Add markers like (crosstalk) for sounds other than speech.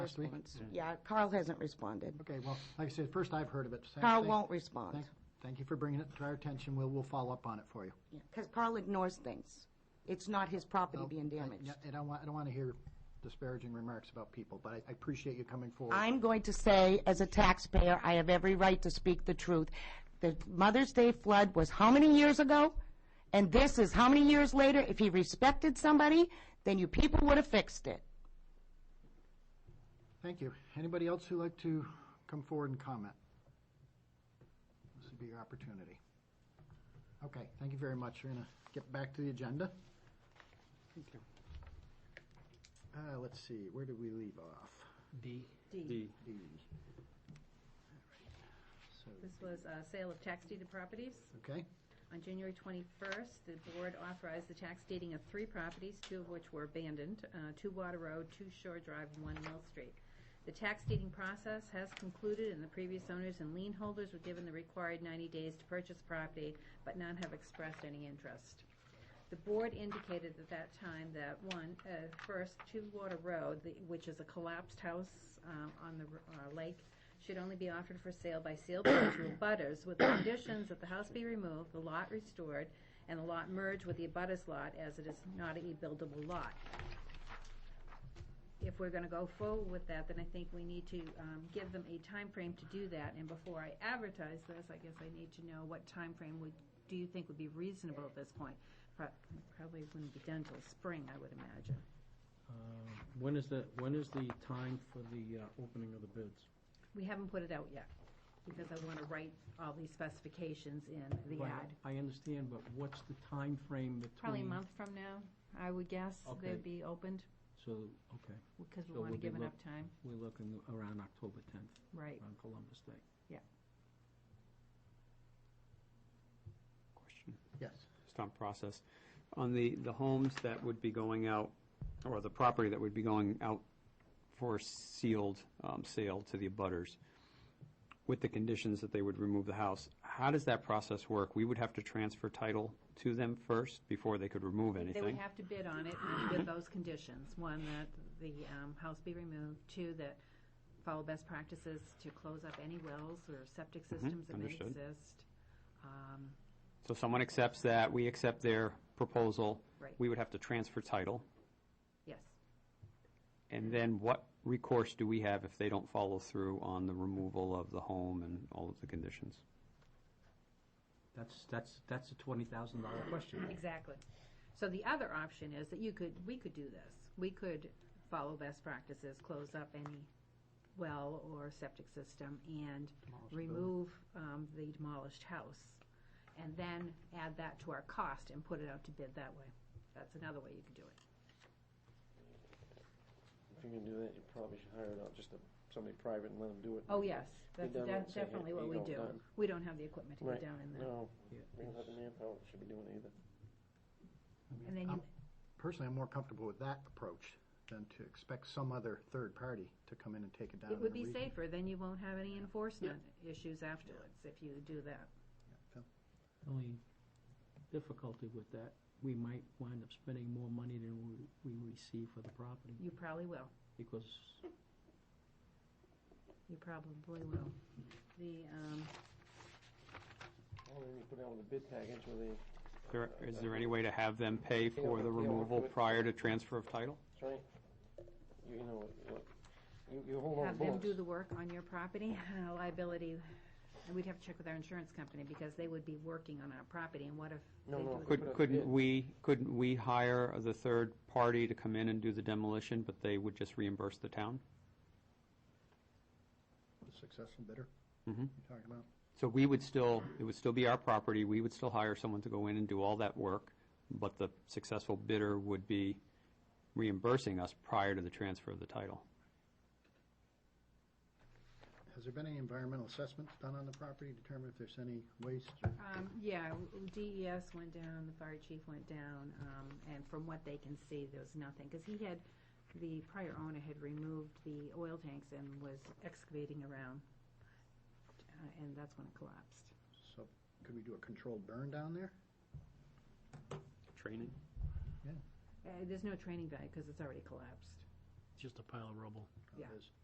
last week? response. Yeah, Carl hasn't responded. Okay, well, like I said, first I've heard of it. so Carl thank- won't respond, thank- Thank you for bringing it to our attention. We'll, we'll follow up on it for you. because Carl ignores things. It's not his property No, being I- damaged. yeah, I don't want, I don't want to hear disparaging remarks about people, but I I appreciate you coming forward. I'm going to say, as a taxpayer, I have every right to speak the truth. The Mother's Day flood was how many years ago? And this is how many years later? If he respected somebody, then you people would have fixed it. Thank you. Anybody else who'd like to come forward and comment? This would be your opportunity. Okay, thank you very much. We're going to get back to the agenda. Thank you. Uh, let's see, where did we leave off? D. D. So, This was a sale of tax deeded properties. okay, On January 21st, the board authorized the tax deeding of three properties, two of which were abandoned, uh, Two Water Road, Two Shore Drive, and One Mill Street. The tax deeding process has concluded, and the previous owners and lien holders were given the required 90 days to purchase property, but none have expressed any interest. The board indicated at that time that, one, uh, first, Two Water Road, the- which is a collapsed house um, on the r- uh, lake, should only be offered for sale by sealed bids to abutters with the conditions that the house be removed, the lot restored, and the lot merged with the abutters lot as it is not a buildable lot. If we're gonna go forward with that, then I think we need to, um, give them a time frame to do that, and before I advertise this, I guess I need to know what time frame would, do you think would be reasonable at this point? Pro- Probably wouldn't be done till spring, I would imagine. uh, When is the, when is the time for the uh, opening of the bids? We haven't put it out yet, because I wanna write all these specifications in the Right, ad. I understand, but what's the time frame between? Probably a month from now, I would guess, Mm-hmm. Okay. they'd be opened, So, okay, because we So want to we'll be give enough look- time, we're looking around October 10th, right? around Columbus Day. Yeah. Question. yes. just on process, on the, the homes that would be going out, or the property that would be going out for sealed um, sale to the abutters, with the conditions that they would remove the house, how does that process work? We would have to transfer title to them first before they could remove They would anything? have to bid on it with those conditions, one, that the um, house be removed, two, that follow best practices to close up any wells or septic Mm-hmm. systems that may understood. exist. Um, So someone accepts that, we accept their proposal. Right. We would have to transfer title, Yes, and then what recourse do we have if they don't follow through on the removal of the home and all of the conditions? That's, that's, that's a $20,000 question. exactly. So the other option is that you could, we could do this. We could follow best practices, close up any well or septic system, and remove um, the demolished house, and then add that to our cost and put it out to bid that way. That's another way you could do it. If you're gonna do that, you probably should hire out just a, somebody private and let them do it. Oh, yes, that's Be done de- and say, hey, definitely what you we don't do. done. We don't have the equipment to Right, get down in there. no, Yeah. we don't have the manpower, that should be doing it either. And then I'm- you, Personally, I'm more comfortable with that approach than to expect some other third party to come in and take it down. it would in a be reason- safer, then you won't have any enforcement issues afterwards if you do that. Only difficulty with that, we might wind up spending more money than we, we receive for the property, You probably will. because You probably will. The, um, Well, then you put out with a bid package where they, There- Is there any way to have them pay for the removal prior to transfer of title? that's right, you, you know, what- you, you hold on have the them bullets. do the work on your property, (laughs) uh, liability, and we'd have to check with our insurance company because they would be working on our property and what if they No, no, do it? Put Could- up Couldn't bid. we, couldn't we hire the third party to come in and do the demolition, but they would just reimburse the town? The successful bidder? Mhm. You're talking about? So we would still, it would still be our property, we would still hire someone to go in and do all that work, but the successful bidder would be reimbursing us prior to the transfer of the title. Has there been any environmental assessments done on the property, to determine if there's any waste? or- Um, yeah, DES went down, the fire chief went down, um, and from what they can see, there was nothing, because he had, the prior owner had removed the oil tanks and was excavating around, uh, and that's when it collapsed. So could we do a controlled burn down there? Training? Uh, there's no training value, because it's already collapsed. just a pile of rubble. Yeah. It is.